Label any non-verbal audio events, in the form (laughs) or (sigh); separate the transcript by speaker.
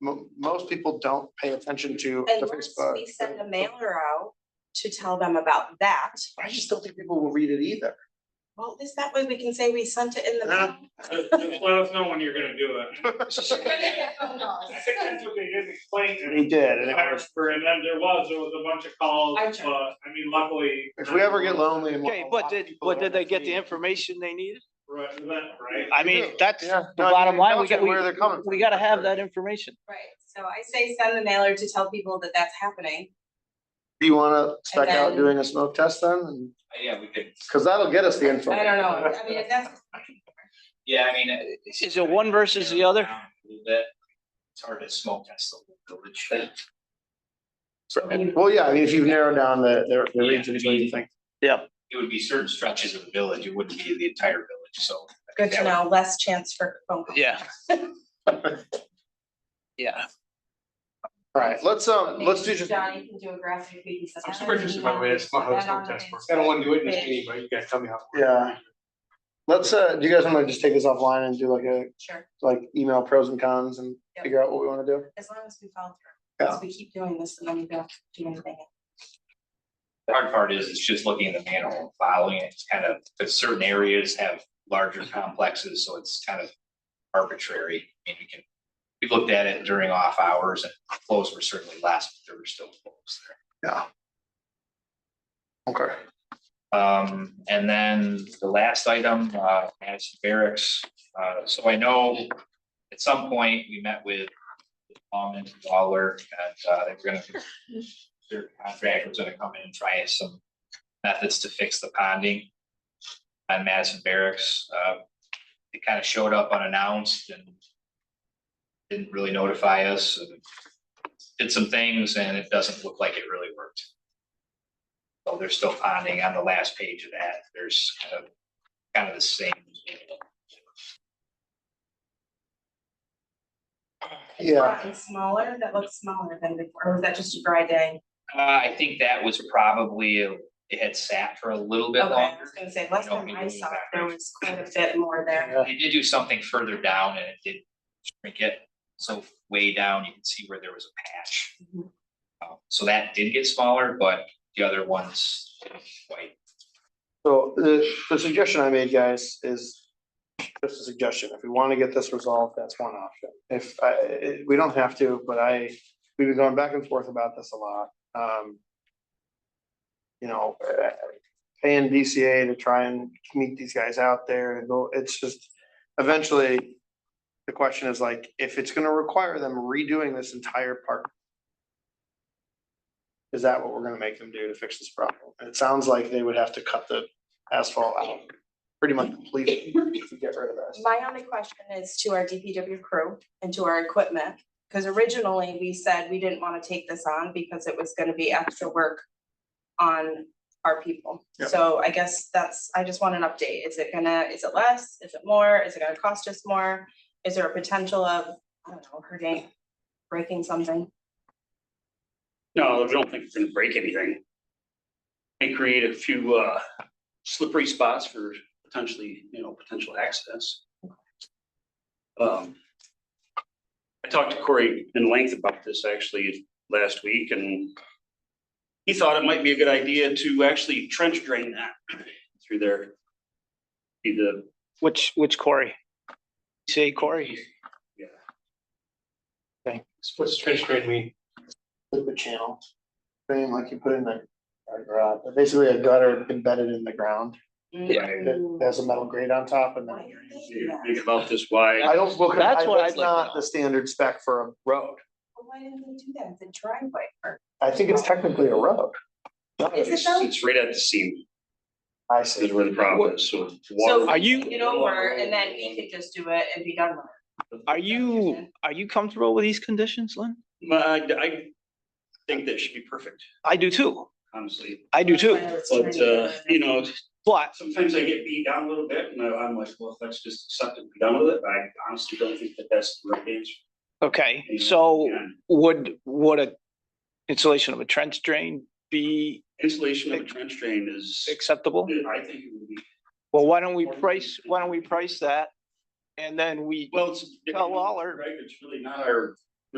Speaker 1: mo- most people don't pay attention to
Speaker 2: And
Speaker 1: the
Speaker 2: once
Speaker 1: Facebook.
Speaker 2: we send a mailer out to tell them about that,
Speaker 1: I just don't think people will read it
Speaker 2: (laughs)
Speaker 1: either.
Speaker 2: well, at least that way we can say we sent it in the mail.
Speaker 3: Just just let us know when you're gonna do it. I think
Speaker 4: I
Speaker 3: that's what they did explain to
Speaker 1: They
Speaker 3: me.
Speaker 1: did, and it was,
Speaker 3: And then there was, there was a bunch of calls,
Speaker 4: I
Speaker 3: but
Speaker 4: checked.
Speaker 3: I mean, luckily.
Speaker 1: if we ever get lonely and.
Speaker 5: Okay, but did, but did they get the information they needed?
Speaker 3: Right, right.
Speaker 5: I mean, that's
Speaker 1: Yeah.
Speaker 5: the
Speaker 1: No, I mean,
Speaker 5: bottom line, we
Speaker 1: that's
Speaker 5: got,
Speaker 1: where they're coming
Speaker 5: we, we gotta have that information.
Speaker 2: (laughs) Right, so I say send the mailer to tell people that that's happening.
Speaker 1: Do you wanna spec out
Speaker 2: then-
Speaker 1: doing a smoke test then? And-
Speaker 6: Yeah, we could,
Speaker 1: Cause that'll get us the info.
Speaker 2: I don't know, I mean, if that's,
Speaker 6: yeah, I mean. it- it's-
Speaker 5: Is it one versus the other?
Speaker 6: A little bit. It's hard to smoke test the whole village. So it
Speaker 1: Well, yeah, I mean, if you narrow down the, the- the regions, what do you think?
Speaker 6: would be certain stretches of the village, it wouldn't be the entire village, so. I
Speaker 2: good
Speaker 6: think
Speaker 2: to
Speaker 6: that
Speaker 2: know, less chance for phone
Speaker 1: (laughs)
Speaker 2: calls.
Speaker 5: Yeah. Yeah,
Speaker 1: Alright, let's, um, let's do just.
Speaker 2: Johnny can do a graphic, we can send
Speaker 3: I'm
Speaker 2: that
Speaker 3: super
Speaker 2: in,
Speaker 3: interested
Speaker 2: you
Speaker 3: by the way
Speaker 2: want
Speaker 3: this smoke
Speaker 2: to put that on
Speaker 3: test
Speaker 2: the-
Speaker 3: works. I don't wanna do it in this
Speaker 2: Page.
Speaker 3: meeting, but you guys tell me how.
Speaker 1: Yeah. Let's, uh, do you guys wanna just take this offline and do like a,
Speaker 2: Sure,
Speaker 1: like email pros and cons and
Speaker 2: Yep.
Speaker 1: figure out what we wanna do?
Speaker 2: as long as we follow through, because we keep doing this and then we don't do anything.
Speaker 6: The Hard part is, it's just looking at the manhole, and following it, it's kind of, because certain areas have larger complexes, so it's kind of arbitrary. I mean, we can, we looked at it during off hours and flows were certainly less, but there were still flows there.
Speaker 1: Okay.
Speaker 6: Um, and then the last item, uh, as barracks, uh, so I know at some point we met with Palm and Lawler and, uh, they were gonna, their contractor was gonna come in and try some methods to fix the ponding on Madison Barracks. Uh, it kind of showed up unannounced and didn't really notify us and did some things and it doesn't look like it really worked. So they're still ponding on the last page of that. There's kind of, kind of the same.
Speaker 1: Yeah,
Speaker 2: It's smaller, that looks smaller than before, or was that just a dry day?
Speaker 6: Uh, I think that was probably, it had sat for a little bit
Speaker 2: Okay, I
Speaker 6: longer.
Speaker 2: was gonna say, last
Speaker 6: You know,
Speaker 2: time
Speaker 6: we
Speaker 2: I
Speaker 6: knew
Speaker 2: saw it,
Speaker 6: that.
Speaker 2: there was quite a bit more there.
Speaker 6: They did do something further down and it did shrink it. So way down, you can see where there was a patch.
Speaker 2: Mhm.
Speaker 6: Uh, So that did get smaller, but the other ones didn't quite.
Speaker 1: so the, the suggestion I made, guys, is just a suggestion. If we wanna get this resolved, that's one option. If, I, it- we don't have to, but I, we've been going back and forth about this a lot. Um. You know, uh, paying BCA to try and meet these guys out there and go, it's just, eventually. The question is like, if it's gonna require them redoing this entire park. Is that what we're gonna make them do to fix this problem? And it sounds like they would have to cut the asphalt out pretty much completely to get rid of this.
Speaker 2: My only question is to our DPW crew and to our equipment, because originally we said we didn't want to take this on because it was gonna be extra work on our people.
Speaker 1: Yeah.
Speaker 2: So I guess that's, I just want an update. Is it gonna, is it less? Is it more? Is it gonna cost us more? Is there a potential of, I don't know, hurting, breaking something?
Speaker 7: No, I don't think it's gonna break anything. And create a few uh slippery spots for potentially, you know, potential accidents. Um. I talked to Corey in length about this actually last week and. He thought it might be a good idea to actually trench drain that through there. Be the,
Speaker 5: which, which Corey? Say Corey,
Speaker 7: yeah.
Speaker 3: What's trench drain mean?
Speaker 1: liquid channel. Thing like you put in the, a garage, basically a gutter embedded in the ground,
Speaker 6: Yeah.
Speaker 1: that
Speaker 2: Mm.
Speaker 1: has a metal grate on top and then.
Speaker 2: Yeah.
Speaker 7: Think about this wide.
Speaker 1: I don't, look.
Speaker 5: That's what
Speaker 1: that's
Speaker 5: I'd like to
Speaker 1: not
Speaker 5: know.
Speaker 1: the standard spec for a road.
Speaker 2: Well, Why didn't they do that? It's a driveway or?
Speaker 1: I think it's technically a road.
Speaker 2: Is it
Speaker 7: It's it's right at the seam,
Speaker 1: I
Speaker 7: is
Speaker 1: see.
Speaker 7: where the problem is, so.
Speaker 2: So
Speaker 7: water-
Speaker 5: Are you-
Speaker 2: Get over and then we could just do it and be done with it.
Speaker 5: are you, are you comfortable with these conditions, Lynn?
Speaker 7: My, I think that should be perfect,
Speaker 5: I do too,
Speaker 7: honestly,
Speaker 5: I do too,
Speaker 7: but, uh, you know,
Speaker 5: but
Speaker 7: sometimes I get beat down a little bit, and I- I'm like, well, let's just accept it, and be done with it, but I honestly don't think that that's the right answer.
Speaker 5: Okay,
Speaker 7: And,
Speaker 5: so
Speaker 7: yeah,
Speaker 5: would, would a installation of a trench drain be
Speaker 7: Installation of a trench drain is,
Speaker 5: acceptable?
Speaker 7: I think it would be,
Speaker 5: Well, why don't we price, why don't we price that? And then we,
Speaker 7: well, it's.
Speaker 5: Tell Lawler.
Speaker 7: Right, it's really not our